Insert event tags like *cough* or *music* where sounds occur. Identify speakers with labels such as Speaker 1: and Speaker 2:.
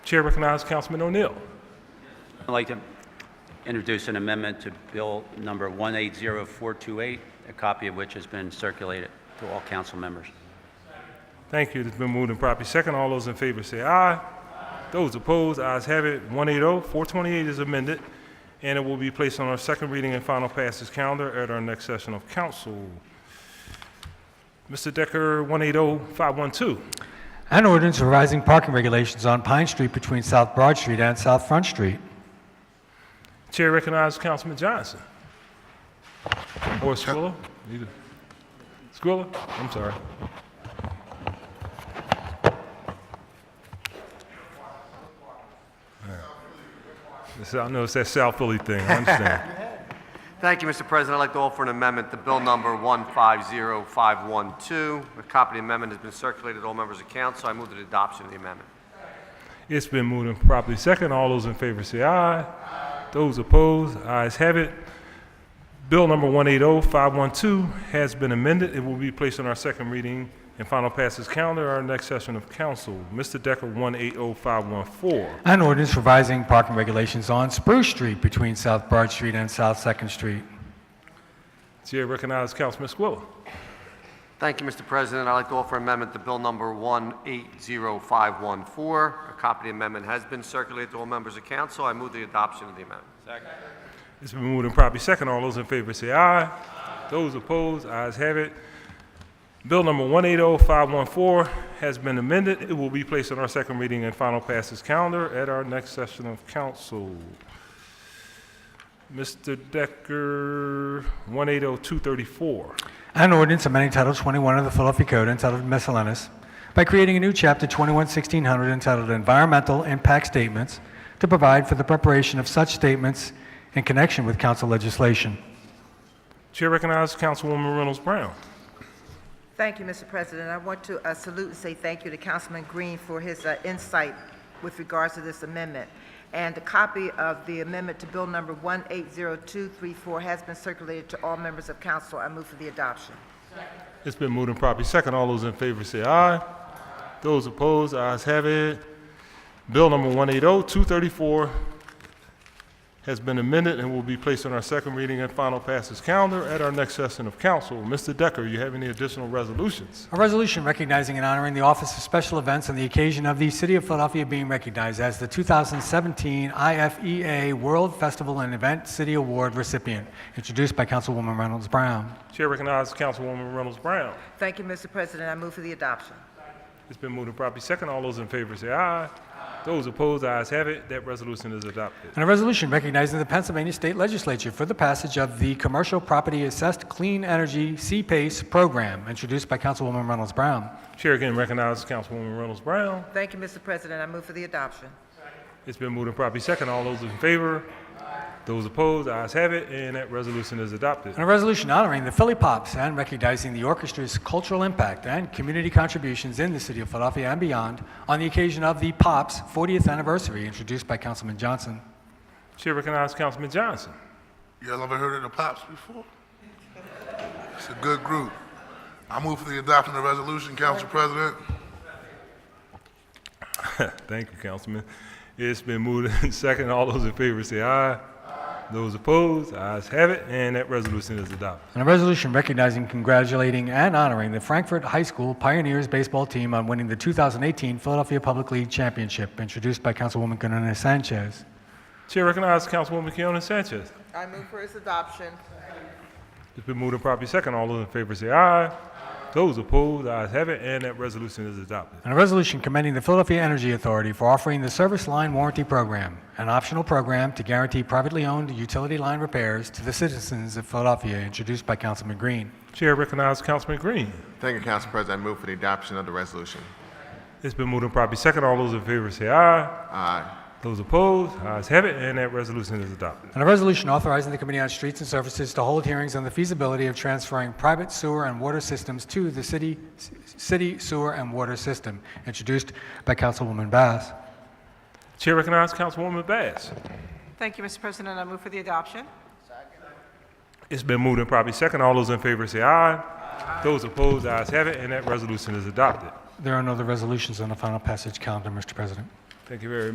Speaker 1: Chair recognizes Councilman O'Neill.
Speaker 2: I'd like to introduce an amendment to Bill Number 180428, a copy of which has been circulated to all council members.
Speaker 1: Thank you. It's been moved and properly second. All those in favor say aye. Those opposed, ayes have it. 180, 428 is amended, and it will be placed on our second reading and final passage calendar at our next session of council. Mr. Decker, oh, 180, 512.
Speaker 3: An ordinance revising parking regulations on Pine Street between South Broad Street and South Front Street.
Speaker 1: Chair recognizes Councilman Johnson. Or Squilla? Either. Squilla? I'm sorry. This- I know it's that South Philly thing, I understand.
Speaker 4: Thank you, Mr. President. I'd like to offer an amendment to Bill Number 150512. A copy of the amendment has been circulated to all members of council. I move to the adoption of the amendment.
Speaker 1: It's been moved and properly second. All those in favor say aye. Those opposed, ayes have it. Bill number 180512 has been amended. It will be placed on our second reading and final passes calendar, our next session of council. Mr. Decker, 180514.
Speaker 3: An ordinance revising parking regulations on Spruce Street between South Broad Street and South Second Street.
Speaker 1: Chair recognizes Councilman Squilla.
Speaker 4: Thank you, Mr. President. I'd like to offer an amendment to Bill Number 180514. A copy of the amendment has been circulated to all members of council. I move the adoption of the amendment.
Speaker 1: It's been moved and properly second. All those in favor say aye. Those opposed, ayes have it. Bill number 180514 has been amended. It will be placed on our second reading and final passes calendar at our next session of council. Mr. Decker, 180234.
Speaker 3: An ordinance amending Title 21 of the Philadelphia Code entitled Miscellaneous by creating a new Chapter 211600 entitled Environmental Impact Statements to provide for the preparation of such statements in connection with council legislation.
Speaker 1: Chair recognizes Councilwoman Reynolds Brown.
Speaker 5: Thank you, Mr. President. I want to uh, salute and say thank you to Councilman Green for his uh, insight with regards to this amendment. And a copy of the amendment to Bill Number 180234 has been circulated to all members of council. I move for the adoption.
Speaker 1: It's been moved and properly second. All those in favor say aye. Those opposed, ayes have it. Bill number 180234 has been amended and will be placed on our second reading and final passes calendar at our next session of council. Mr. Decker, you have any additional resolutions?
Speaker 3: A resolution recognizing and honoring the Office of Special Events on the occasion of the City of Philadelphia being recognized as the 2017 IFEA E World Festival and Event City Award recipient, introduced by Councilwoman Reynolds Brown.
Speaker 1: Chair recognizes Councilwoman Reynolds Brown.
Speaker 5: Thank you, Mr. President. I move for the adoption.
Speaker 1: It's been moved and properly second. All those in favor say aye. Those opposed, ayes have it. That resolution is adopted.
Speaker 3: And a resolution recognizing the Pennsylvania State Legislature for the passage of the Commercial Property Assessed Clean Energy C-PACE E program, introduced by Councilwoman Reynolds Brown.
Speaker 1: Chair again recognizes Councilwoman Reynolds Brown.
Speaker 5: Thank you, Mr. President. I move for the adoption.
Speaker 1: It's been moved and properly second. All those in favor? Those opposed? Ayes have it, and that resolution is adopted.
Speaker 3: And a resolution honoring the Philly Pops and recognizing the orchestra's cultural impact and community contributions in the city of Philadelphia and beyond on the occasion of the Pops 40th anniversary, introduced by Councilman Johnson.
Speaker 1: Chair recognizes Councilman Johnson.
Speaker 6: Y'all ever heard of the Pops before? It's a good group. I move for the adoption of the resolution, Council President.
Speaker 1: Thank you, Councilman. It's been moved *laughs* and second. All those in favor say aye. Those opposed? Ayes have it, and that resolution is adopted.
Speaker 3: And a resolution recognizing, congratulating, and honoring the Frankfurt High School Pioneers baseball team on winning the 2018 Philadelphia Public League Championship, introduced by Councilwoman Gunnarina Sanchez.
Speaker 1: Chair recognizes Councilwoman Keona Sanchez.
Speaker 5: I move for its adoption.
Speaker 1: It's been moved and properly second. All those in favor say aye. Those opposed? Ayes have it, and that resolution is adopted.
Speaker 3: And a resolution commending the Philadelphia Energy Authority for offering the Service Line Warranty Program, an optional program to guarantee privately owned utility line repairs to the citizens of Philadelphia, introduced by Councilman Green.
Speaker 1: Chair recognizes Councilman Green.
Speaker 7: Thank you, Council President. I move for the adoption of the resolution.
Speaker 1: It's been moved and properly second. All those in favor say aye.
Speaker 7: Aye.
Speaker 1: Those opposed, ayes have it, and that resolution is adopted.
Speaker 3: And a resolution authorizing the Committee on Streets and Services to hold hearings on the feasibility of transferring private sewer and water systems to the city, city sewer and water system, introduced by Councilwoman Bass.
Speaker 1: Chair recognizes Councilwoman Bass.
Speaker 8: Thank you, Mr. President. I move for the adoption.
Speaker 1: It's been moved and properly second. All those in favor say aye. Those opposed, ayes have it, and that resolution is adopted.
Speaker 3: There are no other resolutions on the final passage calendar, Mr. President.
Speaker 1: Thank you very